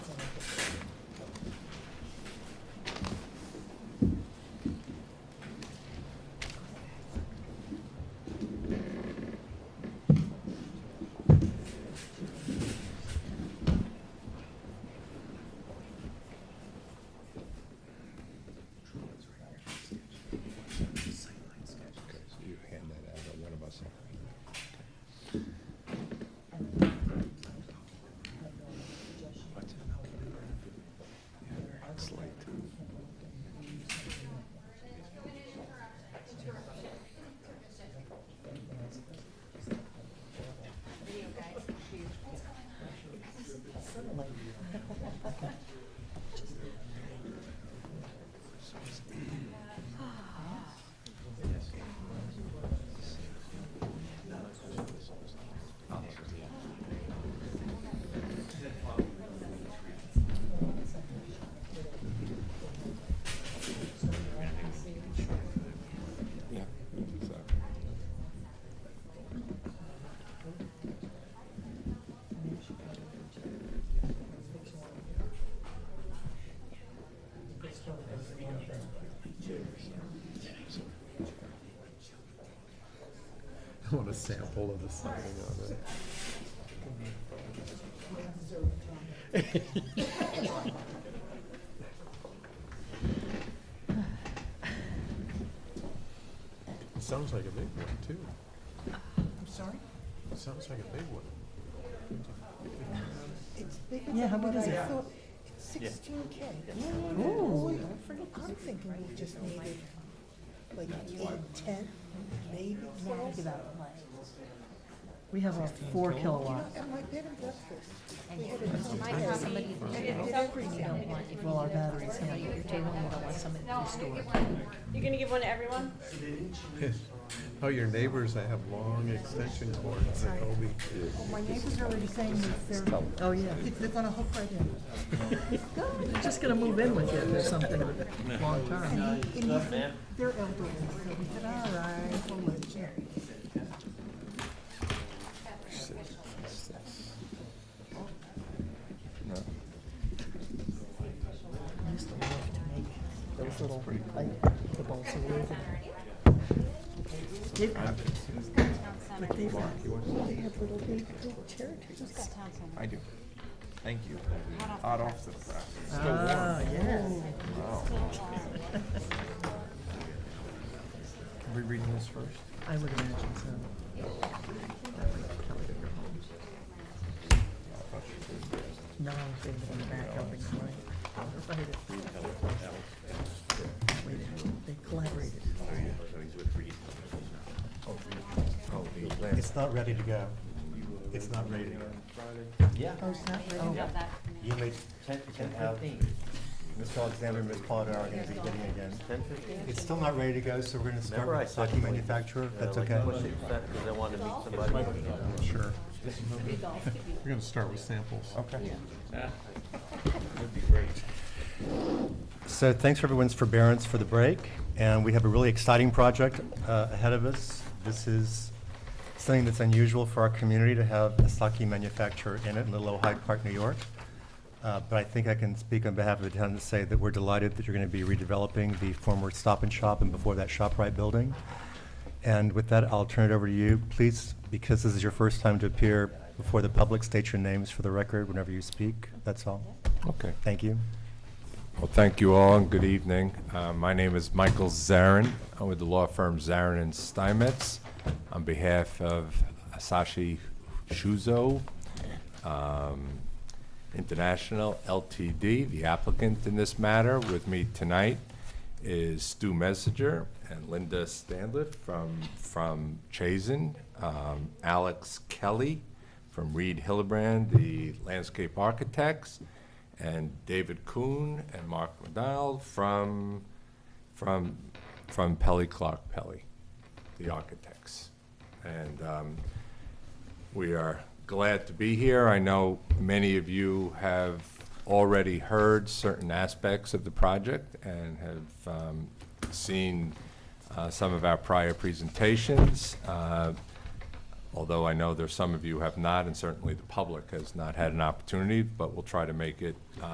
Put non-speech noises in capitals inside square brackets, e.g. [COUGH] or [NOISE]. I want a sample of the signing on it. It Sounds like a big one, too. I'm sorry? It Sounds like a big one. [LAUGHS] It's bigger Yeah, how than what big is I it? thought. It's sixteen K. Ooh. I'm thinking we just needed like eight, ten, maybe twelve. You We have a four know, kilowatt. at my bed and breakfast, we had a My nice copy, you don't want, if you Well, our leave that for batteries somebody at your table, you don't want somebody to store it. You're gonna give one to everyone? Oh, your neighbors, I have long extension cords at Obi. Oh, my neighbor's already saying that they're, Oh, yeah. they're gonna hook right in. They're just gonna move in with you or something, long term. And he, and he, said, they're elderly, so we said, all right, we'll let you. I used to love to make those little, like, the balls of wood. They've got, but they've got, They have little baby little territories. I do. Thank you. Hot off the press. ah, yes. Wow. Are we reading this first? I would imagine so. No, they live in the back helping client. Right. Wait, They collaborated. It's not ready to go. It's not ready to go. Yeah, Oh, it's not ready? Oh, You may, you can have, Mr. Alexander and Ms. Potter are gonna be getting it again. ten fifteen. It's still not ready to go, so we're gonna start Remember I with said stocking you would- manufacturer, And I that's like okay? pushed it back 'cause I wanted to meet somebody. Sure. We're gonna start with samples. Okay. That'd be great. So thanks for everyone's forbearance for the break, and we have a really exciting project uh, ahead of us. This is something that's unusual for our community to have a sake manufacturer in it in Little Old Hyde Park, New York. Uh, But I think I can speak on behalf of the town to say that we're delighted that you're going to be redeveloping the former Stop and Shop and before that ShopRite building. And with that, I'll turn it over to you. Please, because this is your first time to appear before the public, state your names for the record whenever you speak. That's all. Okay. Thank you. Well, thank you all, and good evening. Uh, My name is Michael Zarin. I'm with the law firm Zarin and Steinmetz on behalf of Asashi Shuzo um, International LTD, the applicant in this matter. With me tonight is Stu Messinger and Linda Standliff from, from Chazen, um, Alex Kelly from Reed Hillebrand, the landscape architects, and David Kuhn and Mark McDonald from, from, from Pelly Clark Pelly, the architects. And um, we are glad to be here. I know many of you have already heard certain aspects of the project and have um, seen uh, some of our prior presentations. Uh, although I know there's some of you have not, and certainly the public has not had an opportunity, but we'll try to make it uh,